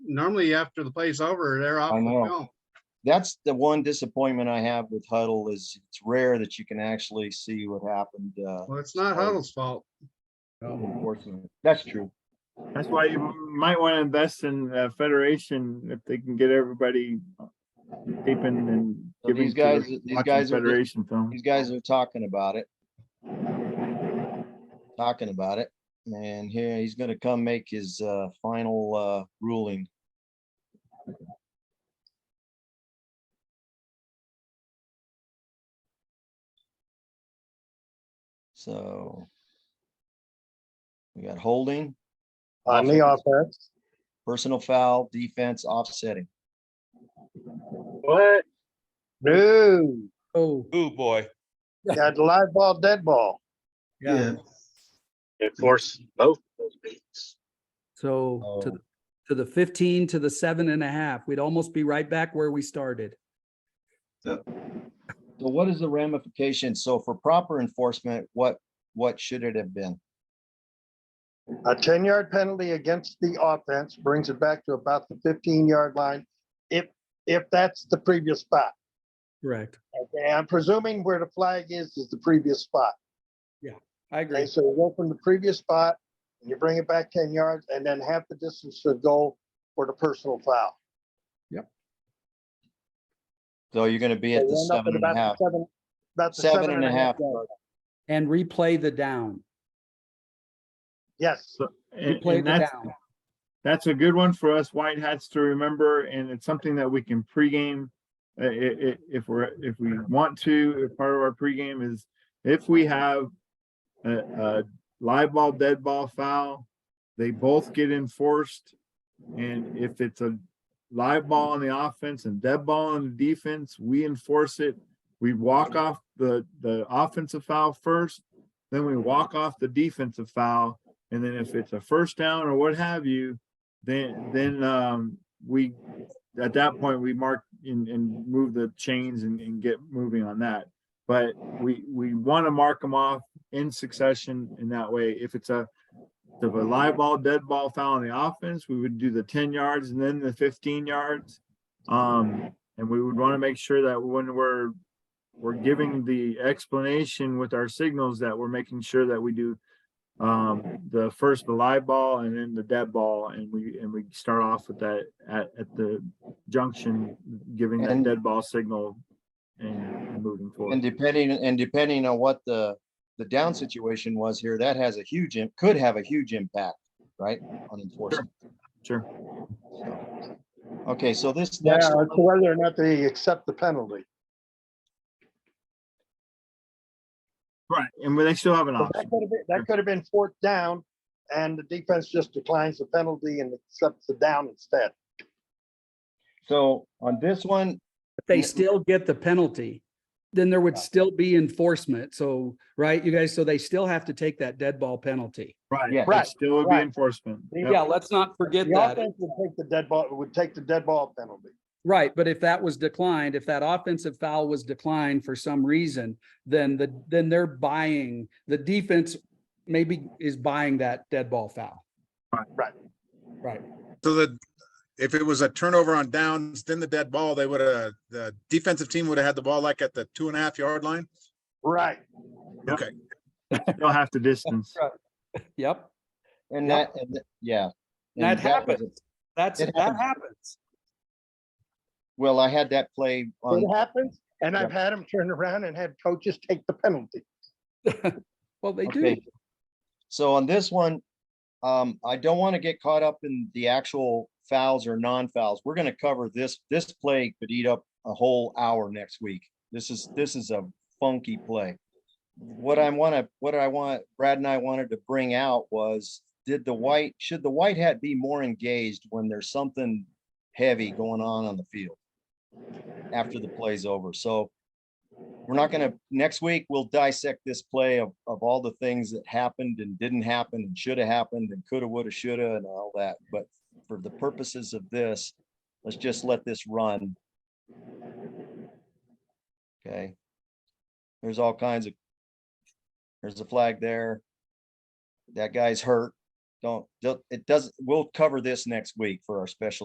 normally after the play's over, they're off. I and know. going. That's the one disappointment I have with Huddle is it's rare that you can actually see what happened. Uh, Well, it's not Sorry. Huddle's fault. unfortunately. That's true. That's why you might want to invest in uh, Federation if they can get everybody deep in and So giving these to guys, these watching guys are, just- Federation film. these guys are talking about it. Talking about it. And here he's gonna come make his uh, final uh, ruling. So we got holding, On the offense. personal foul, defense, offsetting. What? No, Oh, Ooh, boy. got the live ball, dead ball. yeah. Enforce both those beats. So to, the- to the fifteen, to the seven and a half, we'd almost be right back where we started. So what is the ramification? So for proper enforcement, what, what should it have been? A ten yard penalty against the offense brings it back to about the fifteen yard line. If, if that's the previous spot. Correct. Okay, I'm presuming where the flag is, is the previous spot. I Okay, agree. so you go from the previous spot, and you bring it back ten yards, and then half the distance to the goal for the personal foul. So you're gonna be So at you the end up seven and a about the half, seven- About the seven and a half. yard. And replay the down, Yes, And- replay and the that's, down. that's a good one for us white hats to remember, and it's something that we can pregame. Uh, i- i- if we're, if we want to, if part of our pregame is if we have a, a live ball, dead ball foul, they both get enforced. And if it's a live ball on the offense and dead ball on the defense, we enforce it. We walk off the, the offensive foul first, then we walk off the defensive foul. And then if it's a first down or what have you, then, then, um, we, at that point, we mark and, and move the chains and, and get moving on that. But we, we want to mark them off in succession in that way. If it's a, if a live ball, dead ball foul on the offense, we would do the ten yards and then the fifteen yards. Um, and we would want to make sure that when we're, we're giving the explanation with our signals that we're making sure that we do um, the first the live ball and then the dead ball, and we, and we start off with that at, at the junction, giving that And- dead ball signal and moving forward. and depending, and depending on what the, the down situation was here, that has a huge, im- could have a huge impact, right, on enforcement. Sure. So, Okay, so this yeah, next, it's whether or not they accept the penalty. Right, and they still have an Oh, option. But That could have been, that could have been fourth down, and the defense just declines the penalty and accepts the down instead. so on this one, If They still get the penalty. Then there would still be enforcement. So, right, you guys, so they still have to take that dead ball penalty. Right. yeah, Right, It still would be right. enforcement. Yep. Yeah, let's not forget The that. offense would take the dead ball, would take the dead ball penalty. Right, but if that was declined, if that offensive foul was declined for some reason, then the, then they're buying, the defense maybe is buying that dead ball foul. Right. Right, So that if it was a turnover on downs, then the dead ball, they would have, the defensive team would have had the ball like at the two and a half yard line. Right. Still have to distance. yep, and Yeah. that, and th- yeah. and that was a- happens, that's, It that happens. Well, I had that play on, It happens, and I've had them turn around and had coaches take the penalty. Well, they do, Okay. So on this one, um, I don't want to get caught up in the actual fouls or non-fouls. We're gonna cover this, this play could eat up a whole hour next week. This is, this is a funky play. What I wanna, what I want, Brad and I wanted to bring out was, did the white, should the white hat be more engaged when there's something heavy going on on the field? After the play's over, so we're not gonna, next week, we'll dissect this play of, of all the things that happened and didn't happen and should have happened and coulda, woulda, shoulda and all that. But for the purposes of this, let's just let this run. Okay. There's all kinds of, there's a flag there. That guy's hurt. Don't, don't- it doesn't, we'll cover this next week for our special